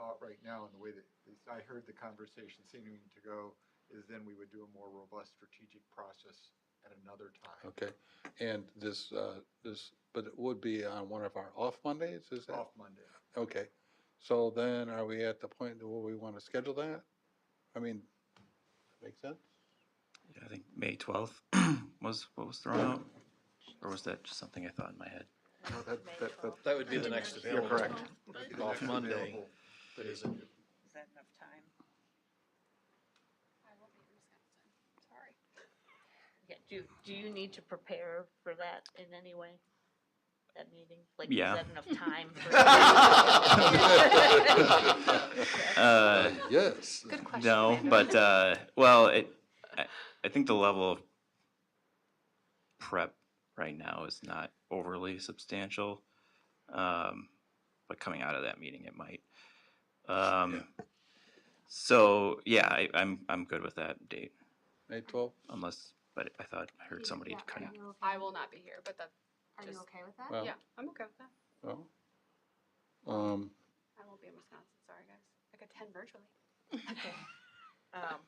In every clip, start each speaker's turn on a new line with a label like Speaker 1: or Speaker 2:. Speaker 1: out right now, and the way that, at least I heard the conversation seeming to go, is then we would do a more robust strategic process at another time.
Speaker 2: Okay, and this, uh, this, but it would be on one of our off Mondays, is that?
Speaker 1: Off Monday.
Speaker 2: Okay, so then are we at the point where we want to schedule that? I mean, make sense?
Speaker 3: Yeah, I think May twelfth was what was thrown out, or was that just something I thought in my head?
Speaker 1: No, that-
Speaker 4: May
Speaker 1: that- that-
Speaker 4: 12th.
Speaker 5: That would be the next
Speaker 1: You're
Speaker 5: available.
Speaker 1: correct.
Speaker 4: Is
Speaker 1: The
Speaker 5: Off
Speaker 1: next
Speaker 5: Monday.
Speaker 1: available
Speaker 5: That isn't.
Speaker 4: that enough time?
Speaker 6: I will be in Wisconsin. Sorry.
Speaker 4: Yeah, do, do you need to prepare for that in any way? That meeting? Like,
Speaker 3: Yeah.
Speaker 4: Is that enough time? for-
Speaker 3: Uh,
Speaker 2: Yes.
Speaker 6: Good question.
Speaker 3: no,
Speaker 6: Amanda.
Speaker 3: but uh, well, it. I, I think the level of prep right now is not overly substantial, um, but coming out of that meeting, it might. Um, So yeah, I, I'm I'm good with that date,
Speaker 2: May twelfth,
Speaker 3: unless. But I thought I heard somebody
Speaker 6: Yeah,
Speaker 3: kind of.
Speaker 6: are you okay-
Speaker 7: I will not be here, but that,
Speaker 6: Are you
Speaker 7: just-
Speaker 6: okay with that?
Speaker 8: Oh.
Speaker 2: Well-
Speaker 7: yeah, I'm okay with that.
Speaker 2: well, um,
Speaker 7: I won't be in Wisconsin, sorry guys. I could attend virtually.
Speaker 4: Um,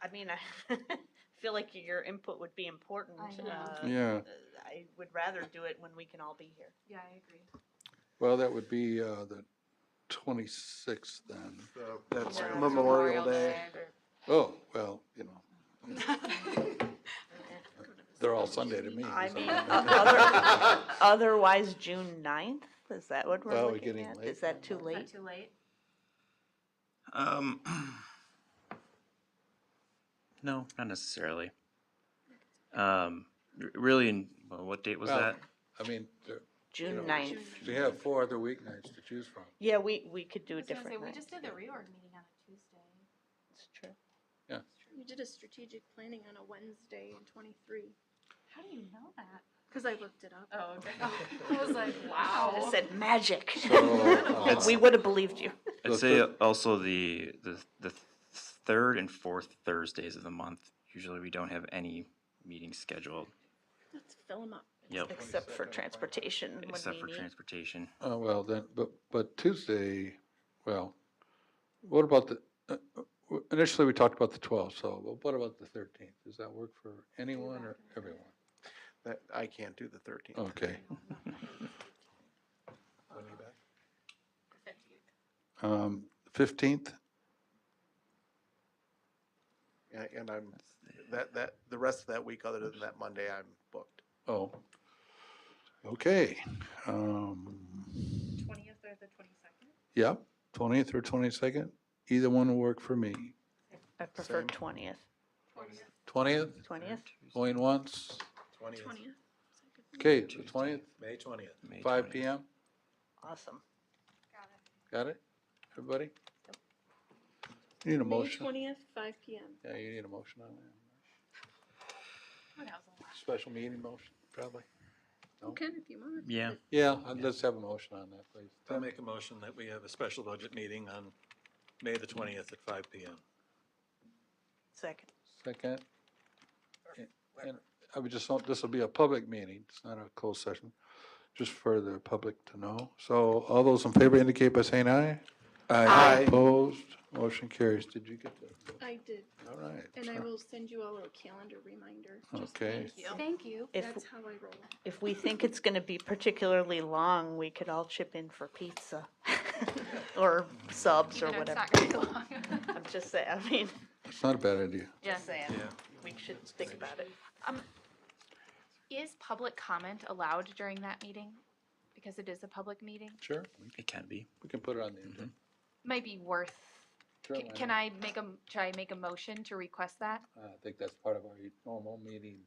Speaker 4: I mean, I feel like your input would be important.
Speaker 6: I know.
Speaker 4: uh,
Speaker 2: yeah,
Speaker 4: I would rather do it when we can all be here.
Speaker 6: Yeah, I agree.
Speaker 2: well, that would be, uh, the twenty-sixth then.
Speaker 1: So,
Speaker 5: That's
Speaker 4: Yeah.
Speaker 5: Memorial
Speaker 7: Memorial
Speaker 5: Day.
Speaker 2: Oh, well, you know, they're all Sunday to me.
Speaker 4: I
Speaker 2: so-
Speaker 4: mean, other- otherwise, June ninth, is that what we're
Speaker 2: Well, we're
Speaker 4: looking
Speaker 2: getting
Speaker 4: at?
Speaker 2: late
Speaker 4: Is that too
Speaker 6: Is that
Speaker 4: late?
Speaker 6: too late?
Speaker 3: Um, no, not necessarily. Um, r- really, in, well, what date was
Speaker 2: Well,
Speaker 3: that?
Speaker 2: I mean, there-
Speaker 4: June
Speaker 2: know,
Speaker 4: ninth.
Speaker 2: we have four other weeknights to choose from.
Speaker 4: Yeah, we, we could
Speaker 6: I
Speaker 4: do a
Speaker 6: was gonna say,
Speaker 4: different
Speaker 6: we
Speaker 4: night.
Speaker 6: just did the reorg meeting on a Tuesday.
Speaker 4: It's true.
Speaker 8: You did a strategic planning on a Wednesday in twenty-three,
Speaker 6: How do you know that?
Speaker 8: because I looked it up.
Speaker 6: Oh, okay.
Speaker 7: I was like,
Speaker 4: I would've
Speaker 7: wow.
Speaker 4: said magic.
Speaker 2: So, uh,
Speaker 4: We would have believed you.
Speaker 3: I'd
Speaker 2: the
Speaker 3: say
Speaker 2: thir-
Speaker 3: also the, the the third and fourth Thursdays of the month. Usually, we don't have any meetings scheduled.
Speaker 8: Let's fill them up.
Speaker 3: Yep,
Speaker 4: Except for
Speaker 1: 22nd,
Speaker 4: transportation when
Speaker 3: except
Speaker 4: we
Speaker 3: for
Speaker 4: meet.
Speaker 3: transportation.
Speaker 2: Uh, well, then, but, but Tuesday, well, what about the, uh, uh, w- initially we talked about the twelfth, so but what about the thirteenth? Does that work for anyone or everyone?
Speaker 5: That, I can't do the thirteenth.
Speaker 2: Okay,
Speaker 7: Fifteenth.
Speaker 2: um, fifteenth,
Speaker 5: And I'm, that, that, the rest of that week, other than that Monday, I'm booked.
Speaker 2: oh. Okay, um,
Speaker 6: Twentieth or the twenty-second?
Speaker 2: yep, twentieth or twenty-second, either one will work for me.
Speaker 4: I prefer
Speaker 5: Same.
Speaker 4: twentieth.
Speaker 2: Twentieth,
Speaker 4: Twentieth?
Speaker 2: going once,
Speaker 8: Twentieth.
Speaker 2: okay, the twentieth,
Speaker 5: May twentieth.
Speaker 3: May
Speaker 2: five
Speaker 3: 20th.
Speaker 2: P M,
Speaker 4: Awesome.
Speaker 6: Got it.
Speaker 2: got it, everybody? Need a motion?
Speaker 8: Twentieth, five P M.
Speaker 2: Yeah, you need a motion on that.
Speaker 6: What else?
Speaker 2: Special meeting motion, probably. No?
Speaker 8: Okay, if you want.
Speaker 3: Yeah,
Speaker 2: Yeah, I'd- let's have a motion on that, please.
Speaker 9: I'll make a motion that we have a special budget meeting on May the 20th at 5 PM.
Speaker 4: Second.
Speaker 2: Second. And- And I would just, want- this will be a public meeting, it's not a closed session, just for the public to know. So all those in favor indicate by saying aye.
Speaker 5: Aye.
Speaker 2: Opposed, motion carries. Did you get that?
Speaker 8: I did,
Speaker 2: All right.
Speaker 8: and I will send you all a calendar reminder. Just
Speaker 2: Okay.
Speaker 8: Thank you.
Speaker 6: Thank you.
Speaker 4: If-
Speaker 8: That's how I roll.
Speaker 4: If we think it's gonna be particularly long, we could all chip in for pizza. Or subs or
Speaker 6: Even though it's
Speaker 4: whatever.
Speaker 6: not gonna be long.
Speaker 4: I'm just saying, I mean,
Speaker 2: It's not a bad idea.
Speaker 6: Yeah.
Speaker 4: just saying, we should think about it.
Speaker 6: Is public comment allowed during that meeting? Because it is a public meeting.
Speaker 2: Sure,
Speaker 3: it can be.
Speaker 2: we can put it on the agenda.
Speaker 6: Might be worth,
Speaker 2: Sure,
Speaker 6: can-
Speaker 2: why
Speaker 6: can
Speaker 2: not?
Speaker 6: I make a, m- should I make a motion to request that?
Speaker 2: I think that's part of our normal meeting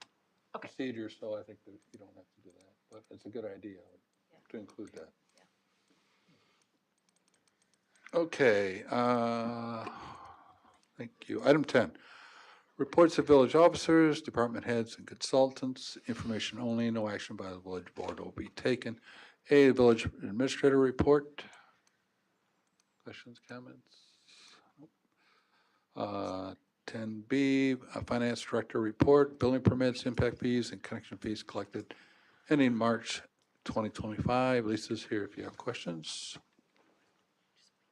Speaker 6: Okay.
Speaker 2: procedure, so I think that you don't have to do that. But it's a good idea to include that. Okay, uh, thank you. Item 10, reports of village officers, department heads, and consultants, information only, no action by the village board will be taken. A, village administrator report. Questions, comments? Uh, 10B, uh, Finance Director Report, Building Permits, Impact Fees, and Connection Fees Collected ending March 2025. Lisa's here if you have questions.